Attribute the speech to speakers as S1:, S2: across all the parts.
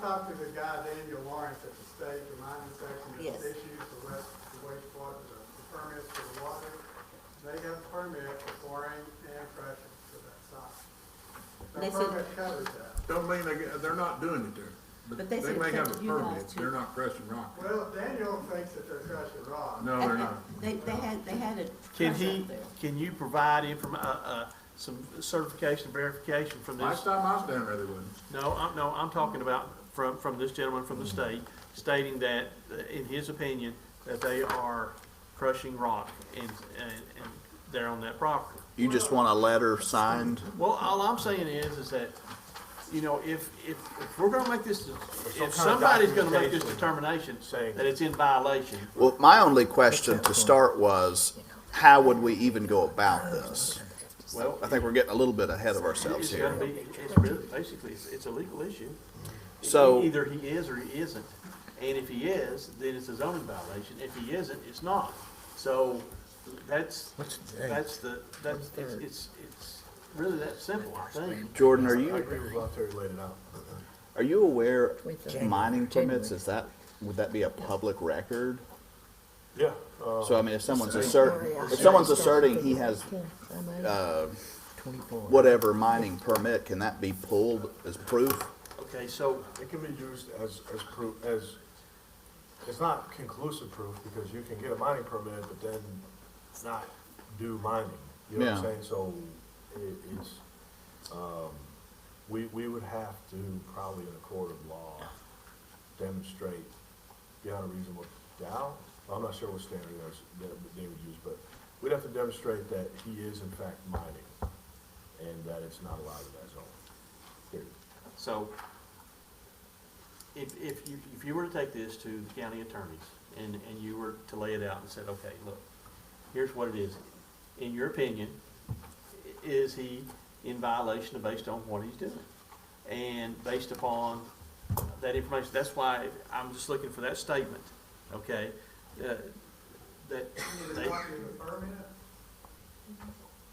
S1: talked to the guy, Daniel Lawrence, at the state, the mining section,
S2: Yes.
S1: that issues the west, the wastewater, the the permits for the water. They have a permit for pouring and crushing for that site.
S2: They
S1: Their
S2: said-
S1: permit covers that.
S3: Don't mean they, get- they're not doing it there,
S2: But
S3: but
S2: they
S3: they
S2: said
S3: may
S2: it's
S3: have
S2: up
S3: a
S2: to you guys
S3: permit,
S2: to-
S3: they're not crushing rock.
S1: Well, Daniel thinks that they're crushing rock.
S3: No, they're not.
S2: They, they had, they had a
S4: Can
S2: crush
S4: he,
S2: up there.
S4: can you provide inform, uh, uh, some certification, verification from
S3: Last
S4: this?
S3: time I was down there, they wouldn't.
S4: No, I'm, no, I'm talking about from, from this gentleman from the state stating that, uh, in his opinion, that they are crushing rock and, and, and they're on that property.
S5: You just want a letter signed?
S4: Well, all I'm saying is, is that, you know, if, if, if we're gonna make this, if somebody's gonna make this determination, that it's in violation,
S5: Well, my only question to start was, how would we even go about this?
S4: well,
S5: I think we're getting a little bit ahead of ourselves
S4: it's gonna
S5: here.
S4: be, it's really, basically, it's, it's a legal issue. E-,
S5: So-
S4: Either he is or he isn't, and if he is, then it's a zoning violation, if he isn't, it's not. So, that's, that's the, that's, it's, it's, it's really that simple, I think.
S5: Jordan, are you?
S6: with what Terry laid it out.
S5: Are you aware
S7: Twenty-third.
S5: mining permits, is that, would that be a public record?
S6: Yeah, uh,
S5: So I mean, if someone's asserting, if someone's asserting he has
S7: uh,
S5: whatever mining permit, can that be pulled as proof?
S4: Okay, so,
S6: it can be used as, as proof, as, it's not conclusive proof, because you can get a mining permit, but then not do mining. You know what I'm
S5: Yeah.
S6: saying? So it, it's, um, we, we would have to probably in a court of law demonstrate beyond a reasonable doubt, I'm not sure what standard that's, that they would use, but we'd have to demonstrate that he is in fact mining, and that it's not allowed in that zone, period.
S4: So, if, if you, if you were to take this to the county attorneys, and, and you were to lay it out and said, okay, look, here's what it is. In your opinion, i- is he in violation of based on what he's doing? And based upon that information, that's why I'm just looking for that statement, okay? Uh, That,
S1: Either
S4: they,
S1: copy of the permit,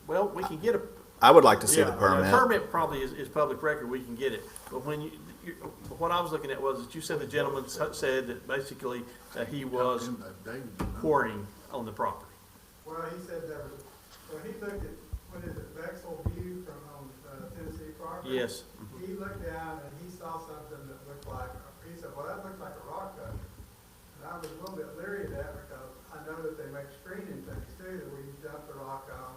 S4: well, we can get a,
S5: I would like to see the
S6: Yeah, and
S4: the
S5: permit.
S4: Permit probably is, is public record, we can get it, but when you, you, what I was looking at was that you said the gentleman s- said that basically that he was
S3: Them, uh, David, no.
S4: pouring on the property.
S1: well, he said there was, well, he looked at, what is it, Vexel View from, um, uh, Tennessee Property?
S4: Yes,
S1: He looked down and he saw something that looked like, he said, well, that looks like a rock cut. And I was a little bit leery of that because I know that they make screening things too, that we dump the rock on.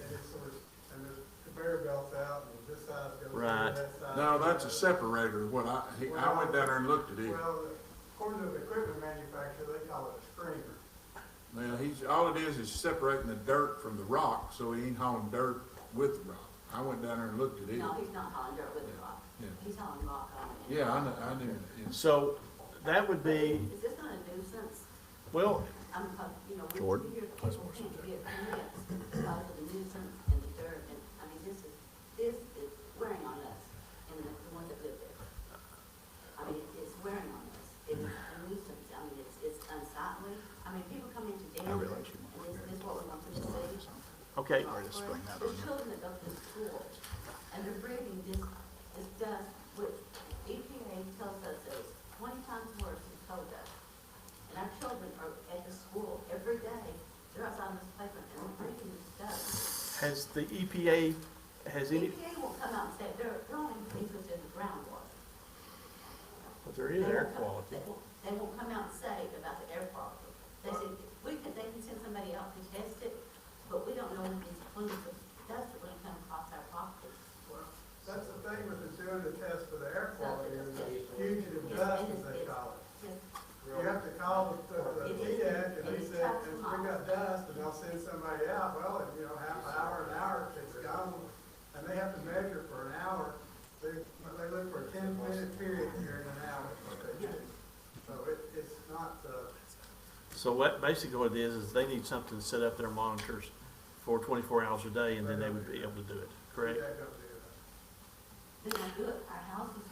S1: And it's sort of, and there's conveyor belts out and this side goes through
S4: Right.
S1: that side.
S3: No, that's a separator, what I, he- I went down there and looked at it.
S1: Well, according to the equipment manufacturer, they call it a screener.
S3: Well, he's, all it is is separating the dirt from the rock, so he ain't hauling dirt with the rock. I went down there and looked at it.
S8: No, he's not hauling dirt with a rock.
S3: Yeah.
S8: He's hauling rock on it.
S3: Yeah, I knew, I knew, it's,
S4: so that would be,
S8: Is this not a nuisance?
S4: well,
S8: I'm, uh, you know, we
S5: Jordan?
S8: we hear people can't get permits because of the nuisance and the dirt, and, I mean, this is, this is wearing on us, and the the ones that live there. I mean, it's wearing on us, it's a nuisance, I mean, it's, it's unsightly, I mean, people come into Danville, and
S5: realize
S8: this
S5: you want
S8: this is what we want them to see.
S4: okay,
S5: just
S8: Or
S5: bring that
S8: The
S5: on.
S8: children that go to school, and they're breathing this, this dust, which EPA tells us is twenty times worse than coal dust. And our children are at the school every day, they're outside on this playground, and they're breathing this dust.
S4: has the EPA, has any,
S8: EPA will come out and say, they're, they're only interested in groundwater.
S4: but oh, there is
S8: They
S4: air
S8: won't come-
S4: quality.
S8: They won't, they won't come out and say about the air quality. They said, we can, they can send somebody out to test it, but we don't know when these, when the dust are gonna come across our property.
S1: That's the thing with the doing the test for the air quality, is the
S8: It's-
S1: fugitive
S8: it's-
S1: dust, as they call it.
S8: it's-
S1: You have to call the, the DDAC, and they said, if we got dust, and they'll send somebody out, well, if, you know, half an hour, an hour, it's gone. And they have to measure for an hour, they, they look for a ten minute period here in an hour, is what they do. So it, it's not, uh,
S4: So what, basically what it is, is they need something to set up their monitors for twenty-four hours a day, and then they would be able to do it,
S1: DDAC
S4: correct?
S1: don't do that.
S8: Then I do it, our houses